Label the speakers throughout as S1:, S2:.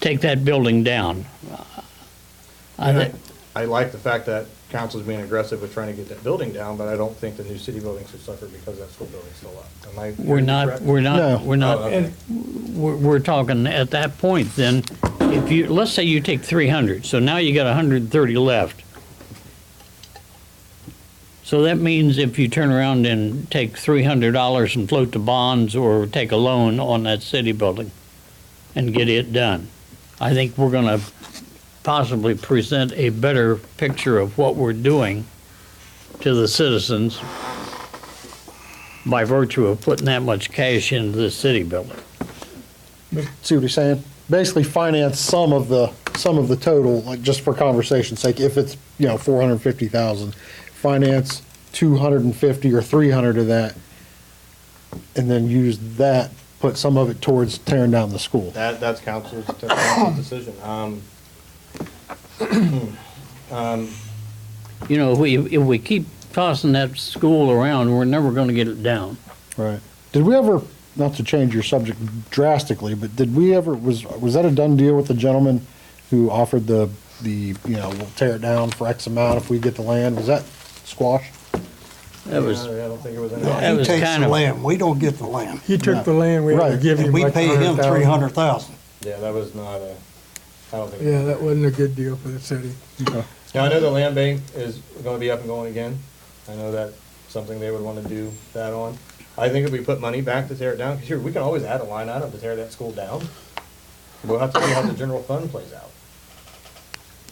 S1: take that building down. I
S2: And
S1: thi-
S2: I- I like the fact that council's being aggressive with trying to get that building down, but I don't think the new city building should suffer because that school building's still up. Am I?
S1: We're not,
S2: correct?
S1: we're not,
S3: No.
S1: we're
S2: Oh,
S1: not,
S2: okay.
S1: we're, we're talking at that point, then, if you, let's say you take three hundred, so now you got hundred and thirty left. So that means if you turn around and take three hundred dollars and float the bonds or take a loan on that city building and get it done, I think we're gonna possibly present a better picture of what we're doing to the citizens by virtue of putting that much cash into the city building.
S3: See what he's saying? Basically finance some of the, some of the total, like just for conversation's sake, if it's, you know, four hundred and fifty thousand, finance two hundred and fifty or three hundred of that, and then use that, put some of it towards tearing down the school.
S2: That, that's council's, that's council's decision. Um,
S1: You know, if we, if we keep tossing that school around, we're never gonna get it down.
S3: Right. Did we ever, not to change your subject drastically, but did we ever, was, was that a done deal with the gentleman who offered the, the, you know, we'll tear it down for X amount if we get the land? Was that squashed?
S1: That was,
S2: yeah, I don't think it was any.
S1: That
S4: He
S1: was
S4: takes
S1: kind
S4: the
S1: of-
S4: land, we don't get the land.
S5: He took the land we had to
S3: Right.
S5: give him
S4: And we
S5: like
S4: pay him
S5: $100,000.
S4: three hundred thousand.
S2: Yeah, that was not a, I don't think.
S5: Yeah, that wasn't a good deal for the city.
S2: Now, I know the land bank is gonna be up and going again. I know that's something they would wanna do that on. I think if we put money back to tear it down, 'cause sure, we can always add a line item to tear that school down. We'll have to see how the general fund plays out.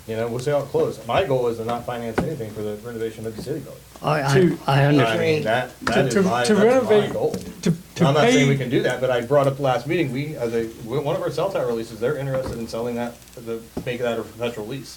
S2: You know, we'll see how it closes. My goal is to not finance anything for the renovation of the city building.
S1: I, I, I
S2: I
S1: understand.
S2: mean, that, that is
S5: to-
S2: my,
S5: to
S2: that's my
S5: renovate-
S2: goal.
S5: To, to
S2: I'm not saying we
S5: pay,
S2: can do that, but I brought up last meeting, we, as a, one of our cell tower releases, they're interested in selling that, the, make that a perpetual lease.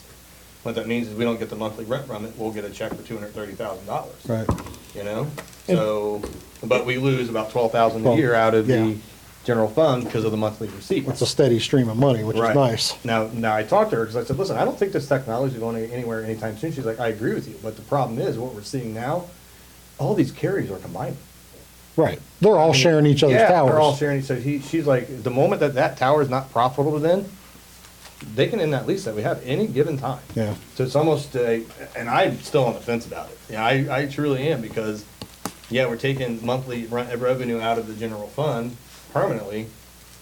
S2: What that means is we don't get the monthly rent from it, we'll get a check for two hundred thirty thousand dollars.
S3: Right.
S2: You know, so, but we lose about twelve thousand a year out of
S3: Yeah.
S2: the general fund because of the monthly
S3: It's
S2: receipts.
S3: a steady stream of money, which is
S2: Right.
S3: nice.
S2: Now, now I talked to her, because I said, listen, I don't think this technology is going anywhere anytime soon, she's like, I agree with you, but the problem is, what we're seeing now, all these carriers are combining.
S3: Right. They're all sharing each other's
S2: yeah,
S3: towers.
S2: They're all sharing. So he, she's like, the moment that that tower is not profitable, then they can end that lease that we have any given time.
S3: Yeah.
S2: So it's almost a, and I'm still on the fence about it. Yeah, I, I truly am because, yeah, we're taking monthly rent revenue out of the general fund permanently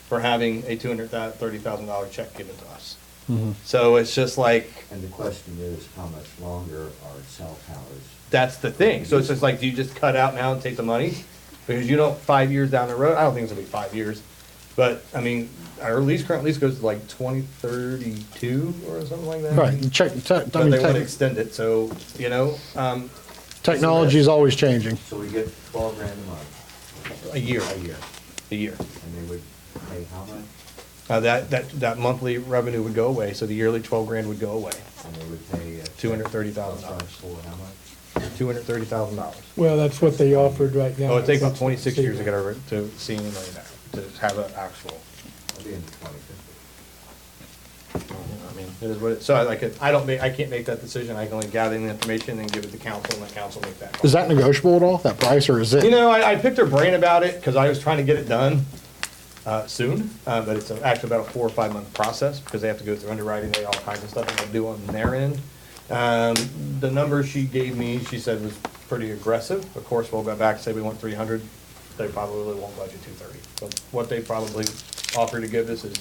S2: for having a two hundred thirty thousand dollar check given to us.
S3: Mm-hmm.
S2: So it's just like
S6: And the question is, how much longer are cell towers?
S2: that's the thing. So it's just like, do you just cut out now and take the money? Because you don't, five years down the road, I don't think it's gonna be five years. But, I mean, our lease, current lease goes to like twenty thirty-two or something like that.
S3: Right. Check, te- I
S2: But
S3: mean,
S2: they would
S3: tech
S2: extend it, so, you know, um,
S3: technology is always changing.
S6: So we get twelve grand a month,
S2: a year, a year, a year.
S6: and they would pay how much?
S2: Uh, that, that, that monthly revenue would go away, so the yearly twelve grand would go away.
S6: And they would pay. uh,
S2: $230,000.
S6: For how much?
S2: Two hundred thirty thousand dollars.
S5: well, that's what they offered right now.
S2: Oh, it takes about twenty-six years to get over, to see any money back, to have an actual.
S6: I'll be in the twenty fifty.
S2: I mean, it is what it, so I like, it- I don't make, I can't make that decision, I can only gather the information and give it to council, and the council make that. call.
S3: Is that negotiable at all, that price, or is
S2: You
S3: it?
S2: know, I, I picked her brain about it, because I was trying to get it done, uh, soon, uh, but it's actually about a four or five month process, because they have to go through underwriting, they all kinds of stuff they do on their end. Um, the number she gave me, she said was pretty aggressive, of course, we'll go back, and say we want three hundred, they probably won't budget two thirty, but what they probably offer to give us is.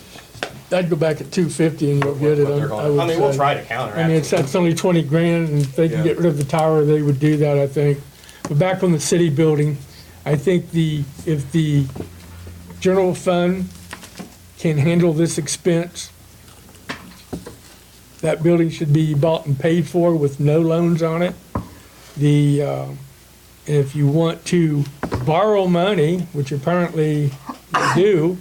S5: I'd go back at two fifty and you'll
S2: what
S5: get it.
S2: they're
S5: I
S2: going-
S5: would
S2: I mean, we'll
S5: say.
S2: try to counter.
S5: I mean, it's,
S2: absolutely.
S5: that's only twenty grand, and if they can get rid of the tower, they would do that, I think. But back on the city building, I think the, if the general fund can handle this expense, that building should be bought and paid for with no loans on it. The, uh, if you want to borrow money, which apparently you do,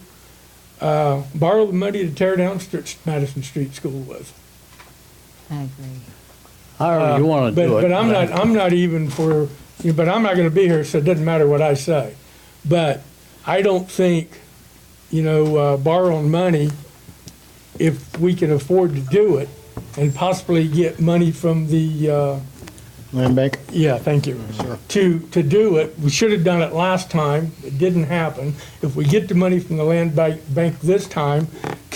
S5: uh, borrow the money to tear down Str- Madison Street School with.
S7: I agree.
S1: However you wanna
S5: Uh, But,
S1: do it.
S5: but I'm not, I'm not even for, but I'm not gonna be here, so it doesn't matter what I say. But I don't think, you know, uh, borrowing money, if we can afford to do it and possibly get money from the, uh,
S3: Land bank?
S5: yeah, thank you. To, to do it, we should have done it last time, it didn't happen. If we get the money from the land bank, bank this time,